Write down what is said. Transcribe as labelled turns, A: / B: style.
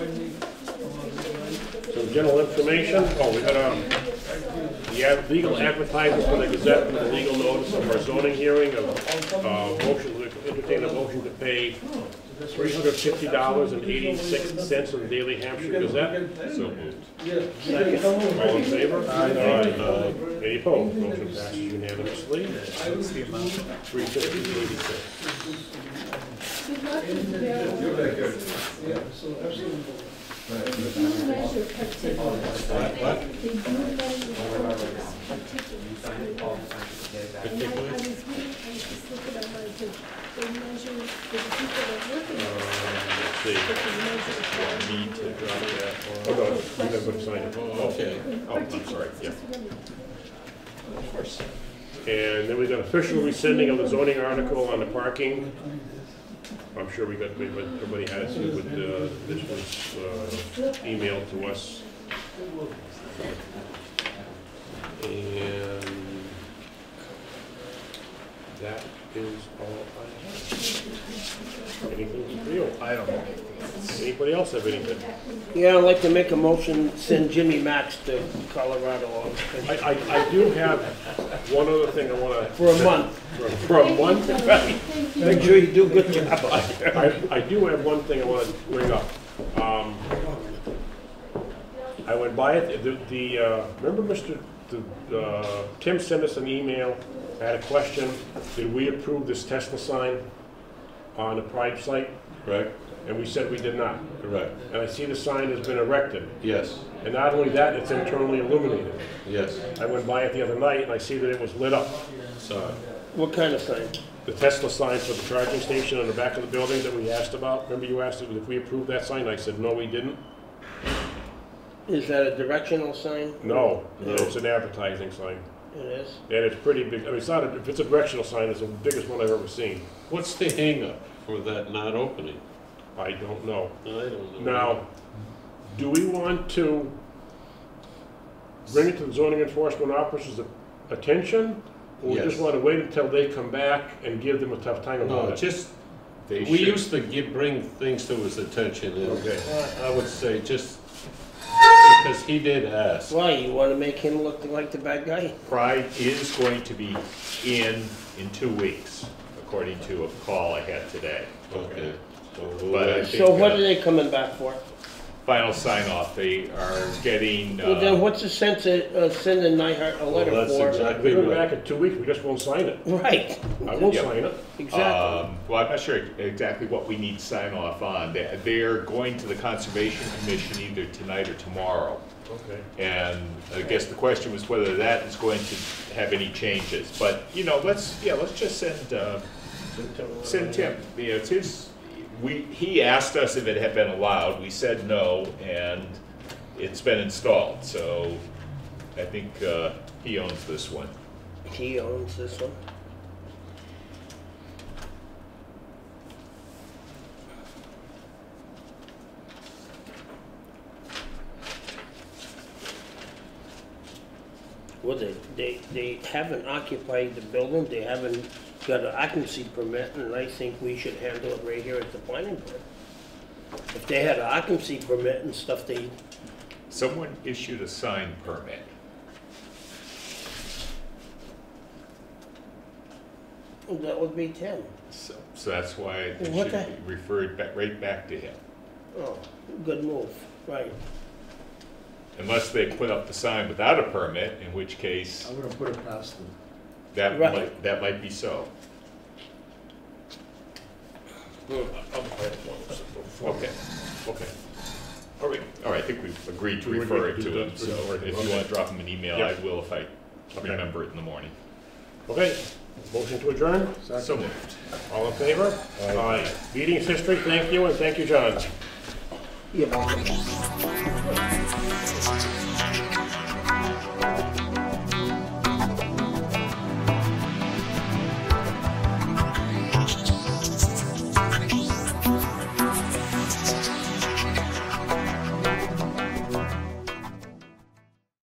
A: So general information, oh, we got, um, the ad- legal advertising for the Gazette and the legal notice of our zoning hearing of, uh, motion, to entertain a motion to pay three hundred fifty dollars and eighty-six cents of the Daily Hampshire Gazette. So moved. All in favor? Aye. Uh, Any opposed? Motion passes unanimously. Three fifty, eighty-six.
B: Good luck with the- They do measure particulars. They do measure particulars. And I, I was reading, I was just looking at my, thing. they measure, the people that work in it,
A: Let's see.
B: they can measure.
A: Need to drop that. Oh, no, you have to sign it. Okay. Oh, I'm sorry,
B: Particulars,
A: yeah.
B: just remember.
A: And then we got official rescinding of the zoning article on the parking. I'm sure we got, but everybody has, it with, uh, this was, uh, emailed to us. And that is all I have. Anything for you? I don't know. Anybody else have anything?
C: Yeah, I'd like to make a motion, send Jimmy Max to Colorado on-
A: I, I, I do have one other thing I wanna.
C: for a month.
A: For- For a month?
B: Thank you, Tony. Thank you.
C: Make sure you do good job.
A: I, I do have one thing I want to bring up. Um, I went by it, the, the, uh, remember Mr., the, uh, Tim sent us an email, I had a question, did we approve this Tesla sign on the Pride site?
D: Correct,
A: And we said we did not.
D: correct,
A: And I see the sign has been erected,
D: yes,
A: and not only that, it's internally illuminated.
D: yes,
A: I went by it the other night and I see that it was lit up.
D: sorry,
C: What kind of sign?
A: The Tesla sign for the charging station on the back of the building that we asked about, remember you asked if we approved that sign? I said, no, we didn't.
C: Is that a directional sign?
A: No,
D: No.
A: it's an advertising sign,
C: It is.
A: and it's pretty big, I mean, it's not, a- if it's a directional sign, it's the biggest one I've ever seen.
D: What's the hangup for that not opening?
A: I don't know.
D: I don't know.
A: Now, do we want to bring it to the zoning enforcement officer's attention? Or we just
D: Yes.
A: wanna wait until they come back and give them a tough time
D: No,
A: about it?
D: just, we used to give, bring things to his attention, and
A: Okay.
D: I- I would say just, because he did ask.
C: Why, you want to make him look like the bad guy?
E: Pride is going to be in, in two weeks, according to a call I had today.
D: Okay. so we'll
E: But I
D: wait.
E: think,
C: So what
E: uh,
C: are they coming back for?
E: final sign off, they are getting,
C: Well, then
E: uh,
C: what's the sense of uh, sending Nyhart a
D: Well,
C: letter
D: that's
C: for?
A: We
D: exactly
A: go
D: right.
A: back in two weeks, we just won't sign it.
C: Right,
A: I won't
E: Yeah.
A: sign it.
C: exactly.
E: um, well, I'm not sure exactly what we need sign off on. They- They're going to the Conservation Commission either tonight or tomorrow.
A: Okay.
E: And I guess the question was whether that is going to have any changes. But, you know, let's, yeah, let's just send, uh, Send Tim, you know, it's his, we, he asked us if it had been allowed, we said no, and it's been installed, so I think, uh, he owns this one.
C: He owns this one. Well, they, they, they haven't occupied the building, they haven't got an occupancy permit, and I think we should handle it right here at the planning board. If they had an occupancy permit and stuff, they,
E: Someone issued a sign permit.
C: that would be ten.
E: So, so that's why it
C: What the-
E: should be referred back, right back to him,
C: Oh, good move, right.
E: unless they put up the sign without a permit, in which case,
F: I'm gonna put it past them.
E: that
C: Right.
E: might, that might be so. Okay, okay. All right, all right, I think we've agreed to
A: We
E: refer
A: agreed to
E: it to
A: do
E: him,
A: that.
E: so
A: Refer it.
E: if you
A: Okay.
E: want to drop him an email, I
A: Yep.
E: will if I
A: Okay.
E: remember it in the morning.
A: Okay, motion to adjourn,
E: So moved.
A: all in favor? Aye. Meeting is history, thank you, and thank you, John.
C: Yeah,